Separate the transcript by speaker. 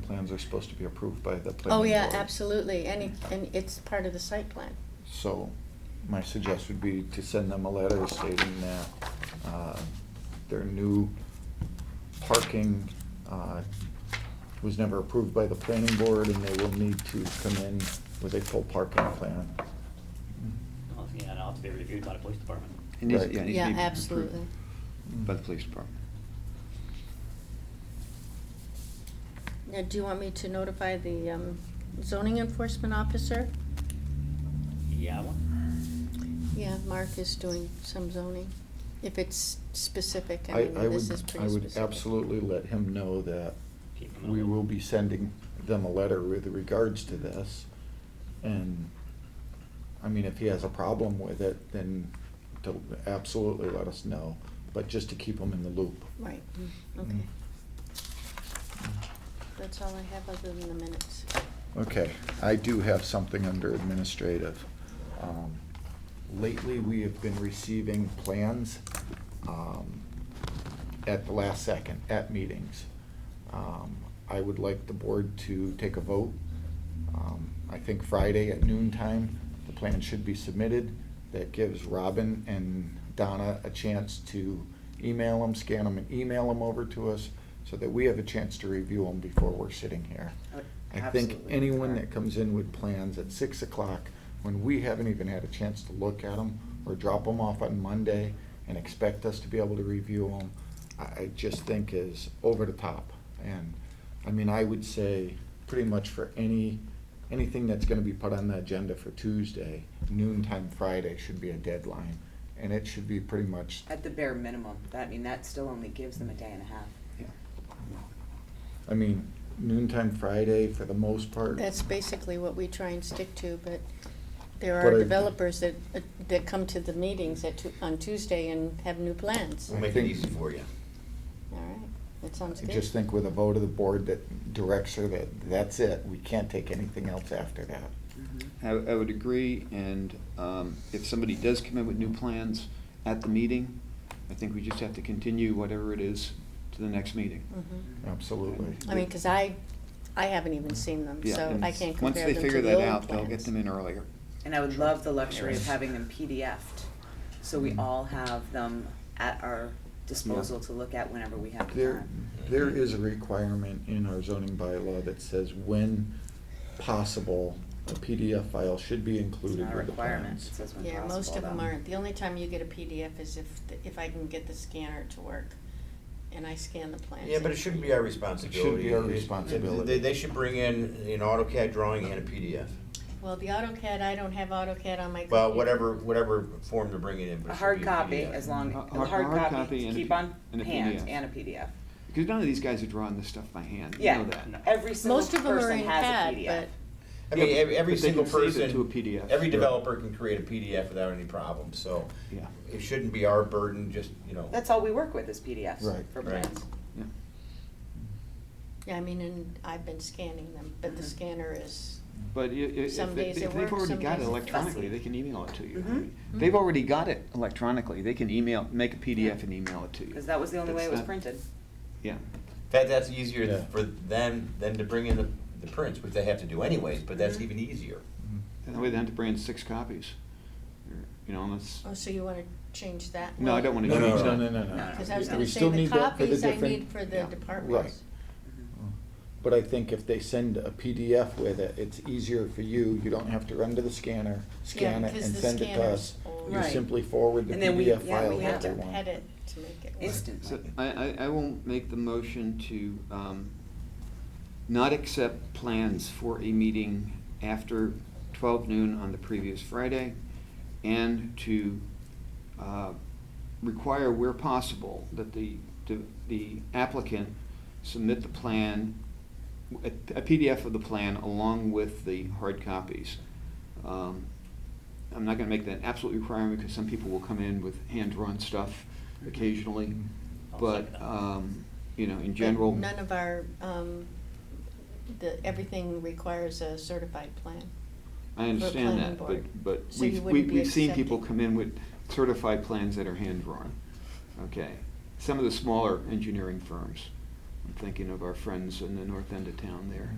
Speaker 1: plans are supposed to be approved by the planning
Speaker 2: Oh, yeah,
Speaker 1: board.
Speaker 2: absolutely, and, it- and it's part of the site plan.
Speaker 1: So my suggestion would be to send them a letter stating that uh, their new parking uh, was never approved by the planning board and they will need to come in with a full parking plan.
Speaker 3: Well, Yeah, and it'll have to be reviewed by the police department.
Speaker 4: It needs,
Speaker 1: Right.
Speaker 4: yeah, it needs to be
Speaker 2: Yeah,
Speaker 4: approved
Speaker 2: absolutely.
Speaker 4: By the police department.
Speaker 2: Now, do you want me to notify the um, zoning enforcement officer?
Speaker 3: Yeah, I want-
Speaker 2: Yeah, Mark is doing some zoning, if it's specific, I
Speaker 1: I,
Speaker 2: mean,
Speaker 1: I
Speaker 2: this is
Speaker 1: would, I
Speaker 2: pretty
Speaker 1: would
Speaker 2: specific.
Speaker 1: absolutely let him know that
Speaker 3: keep them in the
Speaker 1: we
Speaker 3: loop.
Speaker 1: will be sending them a letter with regards to this. And, I mean, if he has a problem with it, then to absolutely let us know, but just to keep him in the loop. Mm.
Speaker 2: Right, mm, okay, that's all I have other than the minutes.
Speaker 1: Okay, I do have something under administrative. Um, Lately, we have been receiving plans um, at the last second, at meetings. Um, I would like the board to take a vote. Um, I think Friday at noon time, the plan should be submitted. That gives Robin and Donna a chance to email them, scan them, and email them over to us so that we have a chance to review them before we're sitting here. I think
Speaker 5: Absolutely.
Speaker 1: anyone that comes in with plans at six o'clock, when we haven't even had a chance to look at them, or drop them off on Monday and expect us to be able to review them, I, I just think is over the top. And, I mean, I would say, pretty much for any, anything that's gonna be put on the agenda for Tuesday, noontime Friday should be a deadline, and it should be pretty much,
Speaker 5: At the bare minimum, that, I mean, that still only gives them a day and a half.
Speaker 1: yeah. I mean, noontime Friday, for the most part.
Speaker 2: That's basically what we try and stick to, but there
Speaker 1: But
Speaker 2: are
Speaker 1: I-
Speaker 2: developers that, uh, that come to the meetings at, Tu- on Tuesday and have new plans.
Speaker 1: I
Speaker 6: We'll make it
Speaker 1: think-
Speaker 6: easy for you.
Speaker 2: All right, that sounds
Speaker 1: I
Speaker 2: good.
Speaker 1: just think with a vote of the board that directs her that that's it, we can't take anything else after that.
Speaker 4: I, I would agree, and um, if somebody does come in with new plans at the meeting, I think we just have to continue whatever it is to the next meeting.
Speaker 2: Mhm.
Speaker 1: Mm-hmm. Absolutely.
Speaker 2: I mean, because I, I haven't even seen them,
Speaker 4: Yeah,
Speaker 2: so
Speaker 4: and
Speaker 2: I can't
Speaker 4: Once
Speaker 2: compare
Speaker 4: they
Speaker 2: them to
Speaker 4: figure
Speaker 2: the
Speaker 4: that
Speaker 2: old
Speaker 4: out, they'll get
Speaker 2: plans.
Speaker 4: them in earlier.
Speaker 5: And I would love the luxury of
Speaker 4: Yes.
Speaker 5: having them PDFed, so
Speaker 4: Mm-hmm.
Speaker 5: we all have them at our disposal to look at whenever we have the
Speaker 1: There,
Speaker 5: time.
Speaker 1: there is a requirement in our zoning bylaw that says when possible, a PDF file should be
Speaker 5: It's
Speaker 1: included
Speaker 5: not a
Speaker 1: with the
Speaker 5: requirement, it
Speaker 1: plans.
Speaker 5: says when possible.
Speaker 2: Yeah, most of them
Speaker 5: though.
Speaker 2: aren't. The only time you get a PDF is if, if I can get the scanner to work, and I scan the plans.
Speaker 6: Yeah, but it shouldn't be our responsibility.
Speaker 1: our
Speaker 6: It- it-
Speaker 1: responsibility.
Speaker 6: They, they should bring in an AutoCAD drawing and a PDF.
Speaker 2: Well, the AutoCAD, I don't have AutoCAD on my computer.
Speaker 6: Well, whatever, whatever form they're bringing in, but
Speaker 5: A
Speaker 6: it should
Speaker 5: hard
Speaker 6: be a
Speaker 5: copy,
Speaker 6: PDF.
Speaker 5: as long,
Speaker 4: A- a
Speaker 5: a
Speaker 4: hard
Speaker 5: hard
Speaker 4: copy
Speaker 5: copy,
Speaker 4: and a
Speaker 5: keep
Speaker 4: P-
Speaker 5: on
Speaker 4: and a
Speaker 5: hand,
Speaker 4: PDF.
Speaker 5: and a PDF.
Speaker 4: Because none of these guys are drawing this stuff by hand, you know
Speaker 5: Yeah,
Speaker 4: that.
Speaker 5: every single
Speaker 2: Most of them are
Speaker 5: person
Speaker 2: in
Speaker 5: has a
Speaker 2: CAD,
Speaker 5: PDF.
Speaker 2: but,
Speaker 6: I mean,
Speaker 4: Yeah,
Speaker 6: every, every
Speaker 4: but they
Speaker 6: single
Speaker 4: can save
Speaker 6: person.
Speaker 4: it to a PDF.
Speaker 6: Every
Speaker 4: Yeah.
Speaker 6: developer can create a PDF without any problem, so
Speaker 4: Yeah,
Speaker 6: it shouldn't be our burden, just, you know.
Speaker 5: That's all we work with is PDFs
Speaker 1: Right.
Speaker 5: for
Speaker 6: Right.
Speaker 5: plans.
Speaker 4: yeah.
Speaker 2: yeah, I mean, and I've been scanning them, but the
Speaker 4: Mm-hmm.
Speaker 5: Mhm.
Speaker 2: scanner is,
Speaker 4: But i- i- if,
Speaker 2: Some
Speaker 4: they-
Speaker 2: days it
Speaker 4: if they've
Speaker 2: works,
Speaker 4: already
Speaker 2: some
Speaker 4: got it
Speaker 2: days it's
Speaker 4: electronically,
Speaker 5: fussy.
Speaker 4: they can email it to you. I
Speaker 5: Mhm.
Speaker 4: mean, They've already got it electronically, they can email, make a PDF and email it to you.
Speaker 5: Because that was the only way
Speaker 4: It's
Speaker 5: it was
Speaker 4: not-
Speaker 5: printed.
Speaker 4: Yeah.
Speaker 6: That, that's easier
Speaker 1: Yeah.
Speaker 6: for them than to bring in the, the prints, which they have to do anyways, but that's
Speaker 5: Mhm.
Speaker 6: even easier.
Speaker 4: And that way they have to bring in six copies. or, You know, unless,
Speaker 2: oh, so you want to change that?
Speaker 4: No, I
Speaker 2: one?
Speaker 4: don't wanna
Speaker 1: No, no,
Speaker 4: change
Speaker 1: Mm-hmm. no,
Speaker 4: that.
Speaker 1: no, no, no.
Speaker 5: No,
Speaker 2: Because I was
Speaker 5: We
Speaker 2: gonna say,
Speaker 1: still
Speaker 2: the
Speaker 1: need that for the
Speaker 2: copies I
Speaker 1: different-
Speaker 2: need for the
Speaker 4: Yeah.
Speaker 2: departments.
Speaker 4: Mm-hmm.
Speaker 1: But I think if they send a PDF with it, it's easier for you, you don't have to run to the scanner, scan it
Speaker 2: because
Speaker 1: and
Speaker 2: the
Speaker 1: send it to
Speaker 2: scanner's
Speaker 1: us.
Speaker 2: old.
Speaker 1: You
Speaker 5: Right.
Speaker 1: simply forward the
Speaker 5: And then we-
Speaker 1: PDF
Speaker 5: yeah,
Speaker 1: file to
Speaker 5: we
Speaker 1: everyone.
Speaker 5: have to
Speaker 2: Pet it to make it work.
Speaker 5: Instant.
Speaker 4: so I, I, I will make the motion to, um, not accept plans for a meeting after twelve noon on the previous Friday, and to, uh, require where possible that the, the- the applicant submit the plan, a a PDF of the plan along with the hard copies. Um, I'm not gonna make that absolute requirement, because some people will come in with hand-drawn stuff occasionally,
Speaker 3: Mm-hmm. I'll
Speaker 4: but,
Speaker 3: second that.
Speaker 4: um, you know, in
Speaker 2: But
Speaker 4: general.
Speaker 2: None of our, um, the, everything requires a certified plan.
Speaker 4: I
Speaker 2: planning
Speaker 4: understand that,
Speaker 2: board.
Speaker 4: but, but
Speaker 2: So you
Speaker 4: we've,
Speaker 2: wouldn't
Speaker 4: we've
Speaker 2: be
Speaker 4: we've seen people
Speaker 2: accepting.
Speaker 4: come in with certified plans that are hand-drawn, okay? Some of the smaller engineering firms, I'm thinking of our friends in the north end of town there.